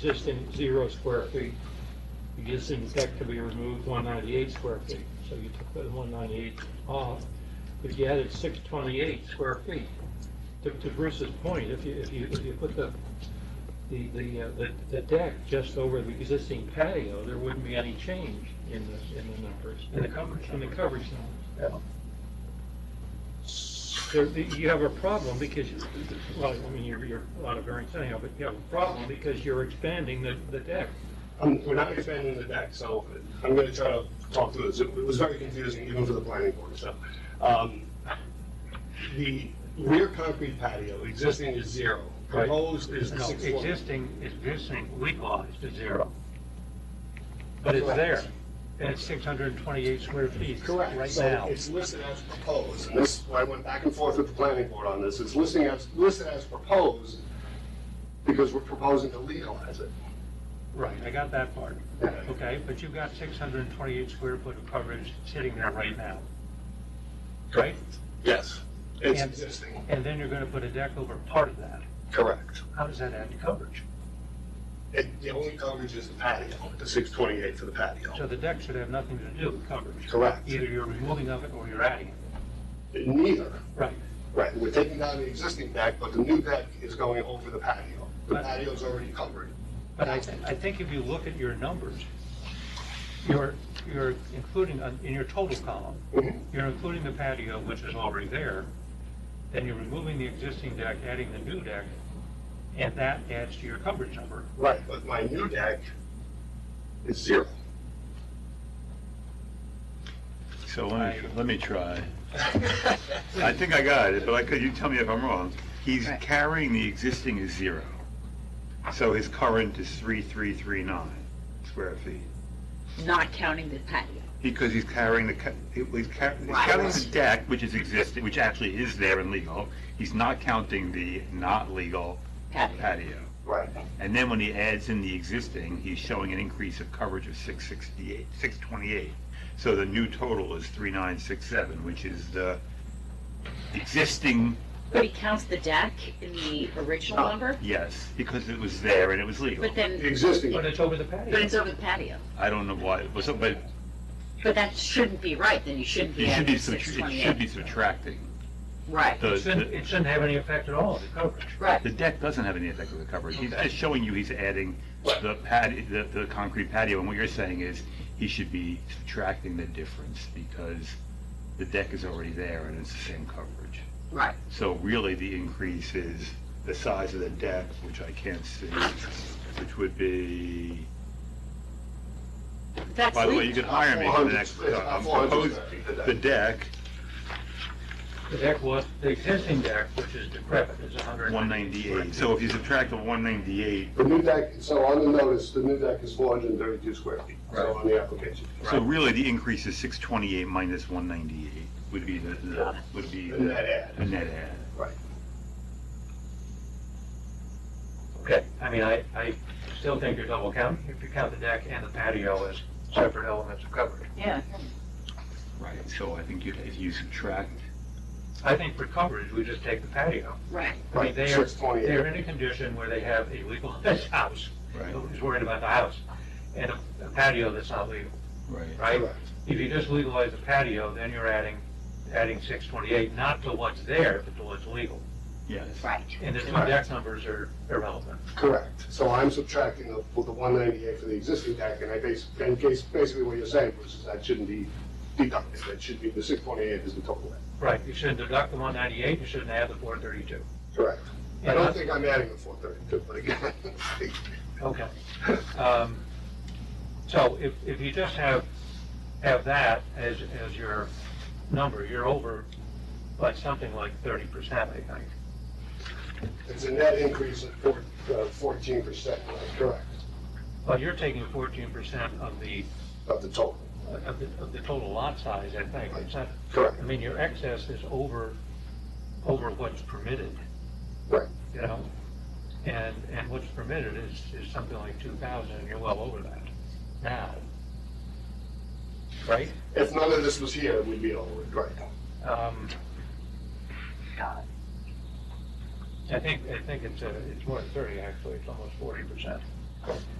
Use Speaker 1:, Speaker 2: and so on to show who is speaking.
Speaker 1: existing zero square feet. Existing deck to be removed, one ninety-eight square feet. So you took the one ninety-eight off, but you added six twenty-eight square feet. To, to Bruce's point, if you, if you, if you put the, the, the, uh, the- the deck just over the existing patio, there wouldn't be any change in the, in the numbers. In the coverage. In the coverage numbers. There, the- you have a problem because, you- well, I mean, you're, you're a lot of variance anyhow, but you have a problem because you're expanding the, the deck.
Speaker 2: Um, we're not expanding the deck, so I'm gonna try to talk through this. It was very confusing even for the planning board, so. Um, the rear concrete patio existing is zero,
Speaker 1: Right.
Speaker 2: proposed is
Speaker 3: No,
Speaker 2: six forty.
Speaker 3: existing, existing legalized is zero. But it's there, and it's 628 square feet right
Speaker 2: So
Speaker 3: now.
Speaker 2: it's listed as proposed, and this, I went back and forth with the planning board on this, it's listing as, listed as proposed because we're proposing to legalize it.
Speaker 3: Right, I got that part. Okay, but you've got 628 square foot of coverage sitting there right now. Right?
Speaker 2: Yes. It's
Speaker 3: And-
Speaker 2: existing,
Speaker 3: And then you're going to put a deck over part of that.
Speaker 2: correct.
Speaker 3: How does that add to coverage?
Speaker 2: It, the only coverage is the patio, the six twenty-eight for the patio.
Speaker 3: So the deck should have nothing to do with coverage.
Speaker 2: Correct.
Speaker 3: Either you're removing of it or you're adding it.
Speaker 2: Neither.
Speaker 3: Right.
Speaker 2: Right, we're taking down the existing deck, but the new deck is going over the patio. The
Speaker 3: But-
Speaker 2: patio's already covered.
Speaker 3: But I, I think if you look at your numbers, you're, you're including, on- in your total column,
Speaker 2: Mhm.
Speaker 3: you're including the patio, which is already there, then you're removing the existing deck, adding the new deck, and that adds to your coverage number.
Speaker 2: Right, but my new deck is zero.
Speaker 4: So let me, let me try. I think I got it, but I could, you tell me if I'm wrong. He's carrying the existing is zero. So his current is 3339 square feet.
Speaker 5: not counting the patio.
Speaker 4: Because he's carrying the, ca- he- he's ca- he's
Speaker 5: Right.
Speaker 4: counting the deck, which is existing, which actually is there and legal. He's not counting the not legal
Speaker 5: Patio.
Speaker 4: patio.
Speaker 2: Right.
Speaker 4: And then when he adds in the existing, he's showing an increase of coverage of 668, 628. So the new total is 3967, which is the existing,
Speaker 5: But he counts the deck in the original
Speaker 2: No.
Speaker 5: number,
Speaker 4: yes, because it was there and it was legal.
Speaker 5: but then,
Speaker 2: The existing,
Speaker 3: But it's over the
Speaker 5: but
Speaker 3: patio.
Speaker 5: it's over the patio.
Speaker 4: I don't know why, it was- but
Speaker 5: But that shouldn't be right, then you shouldn't be
Speaker 4: it should
Speaker 5: adding
Speaker 4: be,
Speaker 5: the
Speaker 4: subtra- it should
Speaker 5: 628.
Speaker 4: be subtracting.
Speaker 5: Right,
Speaker 4: The-
Speaker 3: It shouldn't,
Speaker 4: The
Speaker 3: it shouldn't have any effect at all on the coverage.
Speaker 5: right.
Speaker 4: the deck doesn't have any effect on the coverage. He's
Speaker 3: Okay.
Speaker 4: just showing you he's adding the pad, the the concrete patio, and what you're saying is he should be subtracting the difference because the deck is already there and it's the same coverage.
Speaker 5: Right.
Speaker 4: So really, the increase is the size of the deck, which I can't see, which would be,
Speaker 5: That's
Speaker 4: by the way, you
Speaker 5: legal.
Speaker 4: could hire me for the next,
Speaker 2: 400,
Speaker 4: I'm
Speaker 2: uh, 400
Speaker 4: proposing,
Speaker 2: square feet, the
Speaker 4: the deck,
Speaker 3: The deck was, the existing deck, which is decrepit, is 198.
Speaker 4: 198. So if you subtract the 198,
Speaker 2: the new deck, so on the notice, the new deck is four hundred and thirty-two square feet, so on the application.
Speaker 4: so really, the increase is 628 minus 198 would be the- the, would be
Speaker 2: The net add.
Speaker 4: the net add.
Speaker 2: Right.
Speaker 3: Okay, I mean, I, I still think you're double counting, if you count the deck and the patio as separate elements of coverage.
Speaker 5: Yeah.
Speaker 4: Right. So I think you- if you subtract,
Speaker 3: I think for coverage, we just take the patio.
Speaker 5: Right,
Speaker 3: I mean,
Speaker 2: Right,
Speaker 3: they are,
Speaker 2: six twenty-eight.
Speaker 3: they're in a condition where they have a legal house,
Speaker 4: Right.
Speaker 3: who's worried about the house, and a- a patio that's not legal,
Speaker 4: right,
Speaker 3: right?
Speaker 2: Correct.
Speaker 3: If you just legalize the patio, then you're adding, adding six twenty-eight, not to what's there, but to what's legal.
Speaker 4: yes.
Speaker 5: right.
Speaker 3: And the two deck numbers are irrelevant.
Speaker 2: Correct. So I'm subtracting the, well, the one ninety-eight for the existing deck, and I base, and case, basically what you're saying, Bruce, is that shouldn't be deducted, that should be, the six twenty-eight is the total.
Speaker 3: Right, you shouldn't deduct the one ninety-eight, you shouldn't add the four thirty-two.
Speaker 2: Correct. I
Speaker 3: Yeah.
Speaker 2: don't think I'm adding the four thirty-two, but again,
Speaker 3: Okay. Um, So if, if you just have, have that as, as your number, you're over by something like thirty percent, I think.
Speaker 2: It's a net increase of uh, fourteen percent, correct,
Speaker 3: But you're taking fourteen percent of the,
Speaker 2: of the total.
Speaker 3: of the, of the total lot size, I think. It's not,
Speaker 2: Correct.
Speaker 3: I mean, your excess is over, over what's permitted.
Speaker 2: Right.
Speaker 3: You know? And, and what's permitted is, is something like two thousand, and you're well over that now. Right?
Speaker 2: If none of this was here, we'd be over it, right?
Speaker 3: Um, I think, I think it's, uh, it's more than thirty, actually, it's almost forty percent.